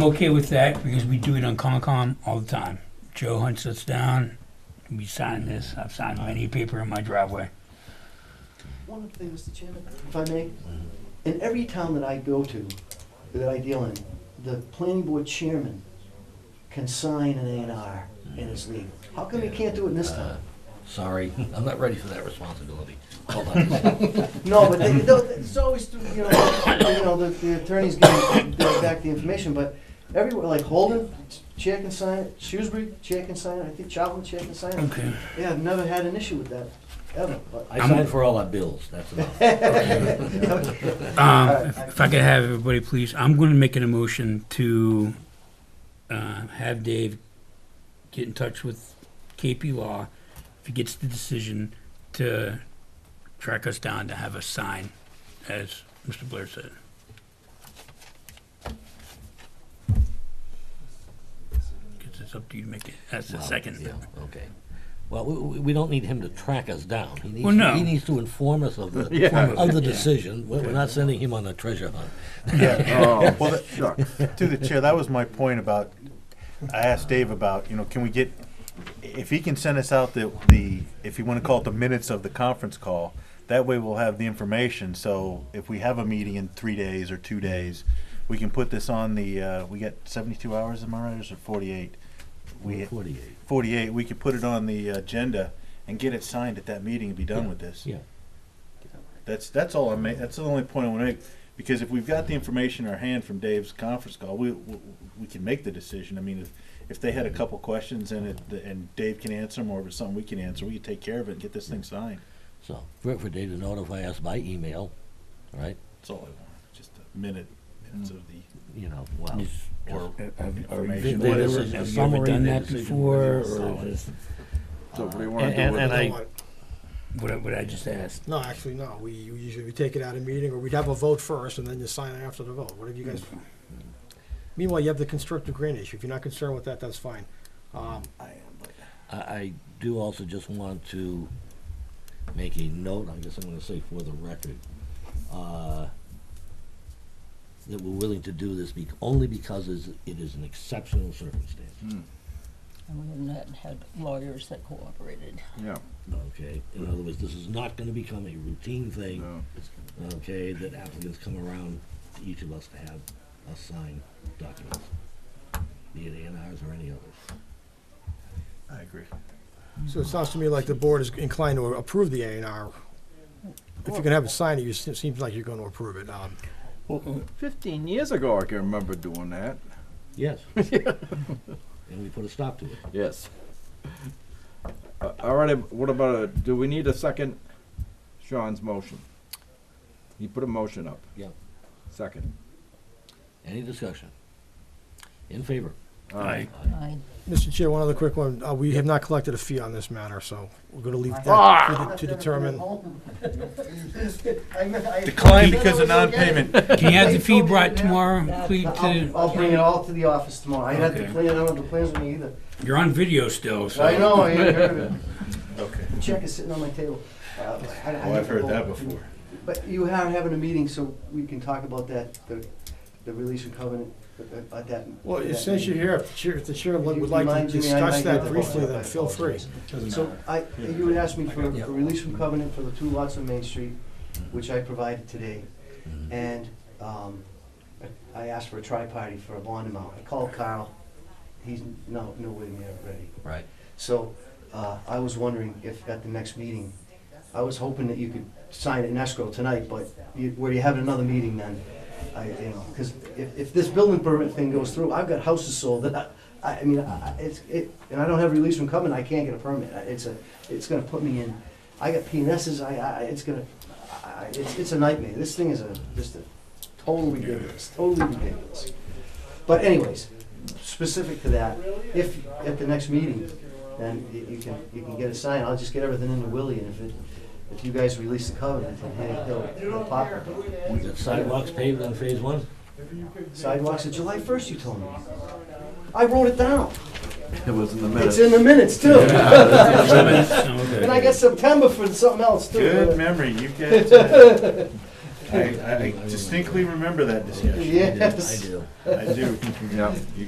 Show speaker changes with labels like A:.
A: I'm okay with that because we do it on Concom all the time. Joe hunts us down, we sign this, I've signed many paper in my driveway.
B: One other thing, Mr. Chairman, if I may, in every town that I go to, that I deal in, the planning board chairman can sign an A and R in his league. How come he can't do it in this town?
C: Uh, Uh-huh. Sorry, I'm not ready for that responsibility. Hold on.
B: No, but they, no, it's always, through, you know, you know, the, the attorneys getting back the information, but everywhere, like Holden, chair can sign it, Shrewsbury, chair can sign it, I think Charlton, chair can sign it.
A: Okay.
B: Yeah, I've never had an issue with that, ever, but.
C: I signed for all our bills, that's enough.
A: Um, if if I could have everybody, please, I'm gonna make an emotion to, uh, have Dave get in touch with KP Law. If he gets the decision to track us down to have us sign, as Mr. Blair said. Cause it's up to you to make it, that's the
C: Wow,
A: second.
C: yeah, Okay. Well, we- we, we don't need him to track us down. He needs
A: Well,
C: to-
A: no.
C: He needs to inform us of the,
D: Yeah.
C: of the decision. We're we're not sending him on a treasure hunt.
D: Yeah. Oh, Well, that- To the chair, that was my point about, I asked Dave about, you know, can we get, if he can send us out the, the, if you wanna call it the minutes of the conference call, that way we'll have the information, so if we have a meeting in three days or two days, we can put this on the, uh, we got seventy-two hours, am I right, or is it forty-eight? We,
C: Forty-eight.
D: forty-eight, we could put it on the agenda and get it signed at that meeting and be done with this.
C: Yeah.
D: That's, that's all I make, that's the only point I wanna make, because if we've got the information in our hand from Dave's conference call, we, we, we can make the decision. I mean, if, if they had a couple questions and it, and Dave can answer them, or if it's something we can answer, we can take care of it and get this thing signed.
C: So, for, for Dave to notify us by email, right?
D: That's all I want, just a minute, minutes of the,
C: You know, well,
D: or
C: they-
D: information,
C: they- there
D: whatever.
C: was a
A: Have you ever
C: summary,
A: done
C: their
A: that
C: decision,
A: before,
C: whatever.
A: or is this
E: So what do you
C: And,
E: want to do
C: and-
E: with
C: and
E: it?
C: I,
A: what I, what I just asked?
F: No, actually, no. We we usually we take it out of meeting, or we'd have a vote first, and then you sign after the vote. Whatever you guys.
B: Mm-hmm.
F: Meanwhile, you have the constructive grant issue. If you're not concerned with that, that's fine. Um,
C: I, I do also just want to make a note, I guess I'm gonna say for the record, uh, that we're willing to do this bec only because it's, it is an exceptional circumstance,
G: And we have not had lawyers that cooperated.
E: Yeah,
C: okay? In other words, this is not gonna become a routine thing,
E: no.
C: okay, that applicants come around to each of us to have us sign documents, be it A and Rs or any others.
D: I agree.
F: so it sounds to me like the board is inclined to approve the A and R. If you're gonna have it signed, it you- it seems like you're gonna approve it. Um,
E: Well, fifteen years ago, I can remember doing that.
C: Yes. And we put a stop to it.
E: Yes. Uh, All right, what about, a- do we need a second Sean's motion? He put a motion up.
C: Yep.
E: Second.
C: Any discussion? In favor?
E: All
A: Aye.
E: right.
G: I,
F: Mr. Chair, one other quick one. Uh, we have not collected a fee on this matter, so we're gonna leave that
B: Ah!
F: to de- to determine.
D: Decline because of non-payment.
A: Can you have the
B: They
A: fee
B: told me
A: brought
B: that-
A: tomorrow,
G: that-
A: please,
B: I'll,
A: to,
B: I'll bring it all to the office tomorrow. I had the
D: Okay.
B: plan, I don't have the plans with me either.
A: you're on video still, so.
B: I know, I ain't heard of it.
D: Okay,
B: The check is sitting on my table. Uh, I- I
D: well, Oh, I've
B: never
D: heard
B: go-
D: that before.
B: But you are having a meeting, so we can talk about that, the, the release and covenant, uh, uh, that.
F: Well,
B: that
F: since you're
B: meeting.
F: here, if the chair- if the chair would
B: You
F: would like to
B: remind me, I
F: discuss
B: might
F: that
B: get the-
F: briefly, then feel free.
B: So I, you would ask me for
C: Yeah.
B: a release from covenant for the two lots on Main Street, which I provided today.
C: Mm-hmm.
B: And um, I asked for a tri-party for a bond amount. I called Carl. He's no, nowhere near ready.
C: Right.
B: So uh, I was wondering if at the next meeting, I was hoping that you could sign it in escrow tonight, but you- where you have another meeting then, I, you know, because if, if this building permit thing goes through, I've got houses sold that I, I I mean, I- I- it's, it, and I don't have release from coming, I can't get a permit. I- It's a, it's gonna put me in, I got PNSs, I, I, it's gonna, I- I, it's, it's a nightmare. This thing is a, just a totally ridiculous, totally ridiculous. But anyways, specific to that, if at the next meeting, then y- you can, you can get a sign, I'll just get everything into Willie, and if it, if you guys release the covenant, then hey, he'll, he'll pop it.
C: The sidewalks paved on phase one?
B: Sidewalks are July first, you told me. I wrote it down,
E: It was in the
B: it's
E: minutes.
B: in the minutes too, and
A: Okay.
B: I got September for something else too.
D: Good memory, you get I, I distinctly remember that discussion.
C: I do, I
B: Yes.
C: do.
D: I do.
E: Yeah.
D: You